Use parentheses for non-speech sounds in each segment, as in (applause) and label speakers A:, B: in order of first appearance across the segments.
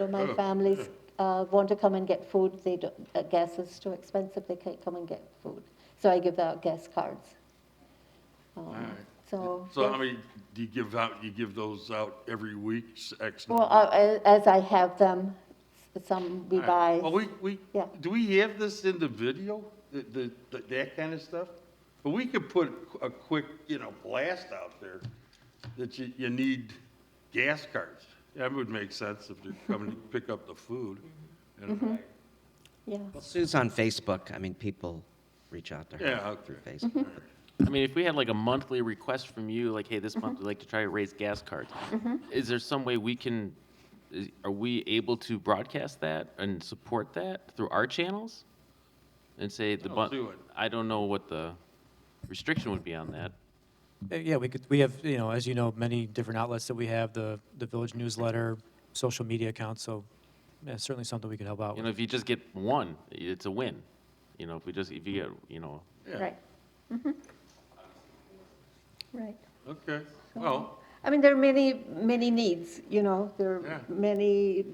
A: So my
B: Oh.
A: families uh, want to come and get food, they don't, uh, gas is too expensive, they can't come and get food. So I give out gas cards. Um,
B: Alright.
A: So,
B: So
A: yeah.
B: how many do you give out, you give those out every week, s- X?
A: well,
B: number?
A: uh, a- as I have them, s- some we buy.
B: Well, we, we,
A: Yeah.
B: do we have this in the video, the, the, the- that kind of stuff? But we could put a quick, you know, blast out there that you, you need gas cards. That would make sense if they're coming to pick up the food. you know.
A: Mm-hmm. Yeah.
C: Well, Sue's on Facebook. I mean, people reach out to her
B: Yeah, okay.
C: through Facebook.
D: I mean, if we had like a monthly request from you, like, hey, this month we'd like to try to raise gas cards, is there some way we can, is, are we able to broadcast that and support that through our channels? And say the
B: I'll
D: month,
B: do it.
D: I don't know what the restriction would be on that.
E: Uh, Yeah, we could, we have, you know, as you know, many different outlets that we have, the, the village newsletter, social media accounts, so yeah, certainly something we could help out
D: You
E: with.
D: know, if you just get one, it's a win. You know, if we just, if you get, you know,
B: Yeah,
A: Right. Mhm. Right.
B: Okay, well,
A: I mean, there are many, many needs, you know, there
B: Yeah.
A: are many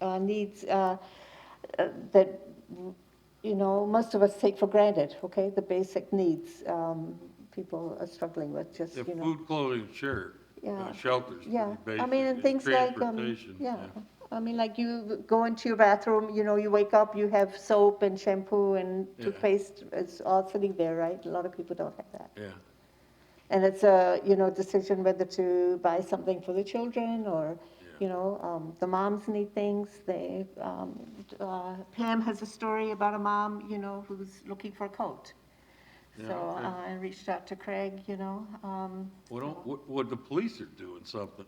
A: uh, needs uh, uh, that, you know, most of us take for granted, okay? The basic needs um, people are struggling with, just,
B: yeah,
A: you know.
B: food, clothing, sure, you know,
A: Yeah.
B: shelters,
A: Yeah,
B: pretty basic.
A: I mean, and things like, um,
B: transportation,
A: yeah, I mean, like you go into your bathroom, you know, you wake up, you have soap and shampoo and
B: Yeah.
A: toothpaste, it's all sitting there, right? A lot of people don't have that.
B: Yeah.
A: And it's a, you know, decision whether to buy something for the children or, you know, um, the moms need things. They, um, uh, Pam has a story about a mom, you know, who's looking for a coat.
B: Yeah,
A: So
B: okay.
A: uh, I reached out to Craig, you know, um,
B: Well, don't, what, what the police are doing something,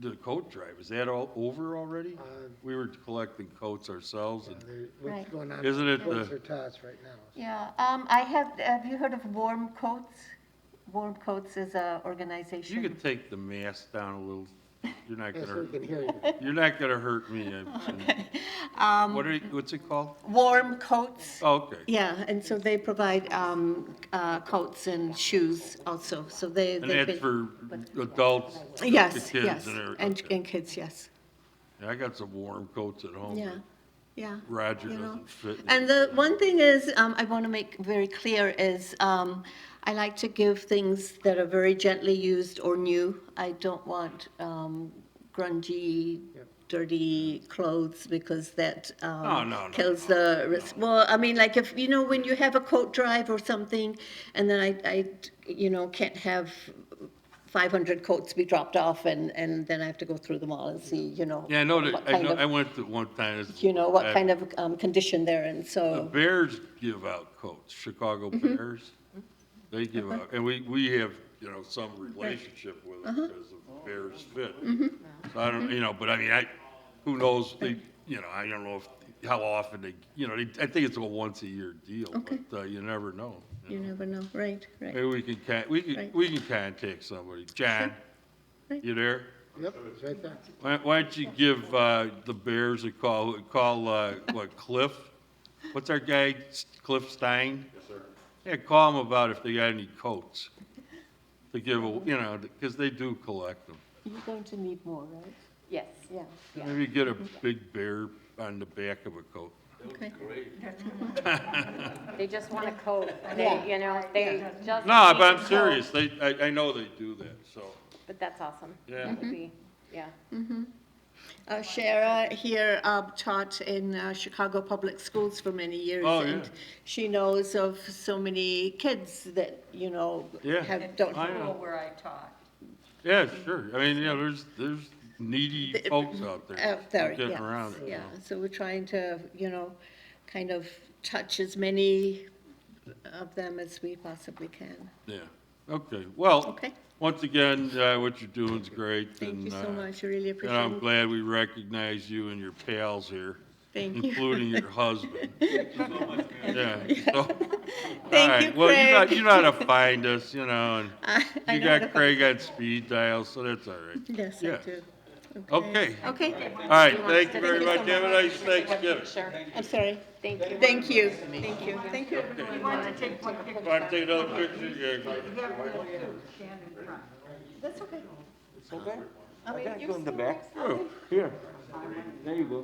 B: the coat drive, is that all over already? We were collecting coats ourselves and,
F: There- What's
A: Right.
F: going on?
B: Isn't it uh,
F: What's
B: the-
F: their tots right now?
A: yeah, um, I have, have you heard of Warm Coats? Warm Coats is a
B: you
A: organization.
B: can take the mask down a little, you're not gonna
F: Yes, we
B: hurt,
F: can hear you.
B: (laughs) you're not gonna hurt me.
A: (laughs)
B: I- What are, you- what's it called?
A: Warm Coats.
B: Oh, Okay,
A: Um, Yeah, and so they provide, um, uh, coats and shoes also, so they.
B: and
A: they've
B: that's
A: been-
B: for adults, not the
A: Yes,
B: kids
A: yes,
B: and
A: and,
B: everything.
A: and kids, yes,
B: I got some warm coats at home.
A: yeah, yeah.
B: um, Roger
A: you know.
B: doesn't fit. in.
A: And the one thing is, um, I want to make very clear is, um, I like to give things that are very gently used or new. I don't want, um, grungy, dirty clothes because that,
B: No,
A: um,
B: no, no,
A: kills the, res- well, I mean, like if, you know, when you have a coat drive or something and then I, I, you know, can't have 500 coats be dropped off and, and then I have to go through them all and see, you know.
B: Yeah, I know that,
A: what
B: I
A: kind
B: know,
A: of-
B: I went to one time. it's-
A: you know, what
B: I-
A: kind of um, condition they're in,
B: The
A: so,
B: Bears give out coats, Chicago
A: Mm-hmm.
B: Bears. They give
A: Uh-huh.
B: out, and we, we have, you know, some relationship with
A: Uh-huh.
B: them because of Bears fit.
A: Mm-hmm.
B: So I don't, you know, but I mean, I, who knows, they, you know, I don't know if, how often they, you know, they, I think it's a once a year deal,
A: Okay.
B: but uh, you never know.
A: you never know, right, right.
B: Maybe we can, con- we can,
A: Right.
B: we can contact somebody. John,
A: Right.
B: you there?
F: Yep, it's right there.
B: Why, why don't you give, uh, the Bears a call, call, uh, what, Cliff? What's our guy, S- Cliff Stein? Yes, sir. Yeah, call him about if they got any coats to give, a- you know, because they do collect them.
A: You're going to need more, right?
G: Yes.
A: Yeah,
B: Maybe get a big bear on the back of a coat.
A: okay.
G: They just want a coat. They, you know, they just.
B: No,
G: need
B: but
G: a
B: I'm
G: coat.
B: serious, they, I, I know they do that, so,
G: But that's awesome.
B: Yeah.
G: That would be- Yeah.
A: Uh, Shara here um, taught in uh, Chicago Public Schools for many years.
B: Oh,
A: and
B: yeah.
A: She knows of so many kids that, you know,
B: yeah.
A: have, don't.
B: I
A: have-
B: know.
H: where I taught.
B: Yeah, sure, I mean, you know, there's, there's needy folks out there.
A: Out there,
B: Getting
A: yes,
B: around it.
A: Yeah, so we're trying to, you know, kind of touch as many of them as we possibly can.
B: Yeah, okay, well,
A: Okay.
B: once again, uh, what you're doing's great.
A: Thank you
B: and,
A: so
B: uh,
A: much, I really
B: And
A: appreciate
B: I'm
A: it.
B: glad we recognize you and your pals here,
A: Thank you. (laughs)
B: including your husband. Yeah. so-
A: (laughs) Thank
B: all right,
A: you,
B: Well, you know-
A: Craig.
B: you know how to find us, you know,
A: I- (laughs) I
B: and you
A: know the-
B: got Craig on speed dial, so that's all right.
A: Yes, I
B: Yeah.
A: do.
B: Okay,
A: Okay,
B: all right, thank you very much. Have a nice Thanksgiving.
A: I'm sorry.
G: Thank you.
A: Thank you, thank you. Thank you.
B: Want to take another picture? Yeah.
A: That's okay.
B: oh,
C: Go in the back. Here.
H: There you go.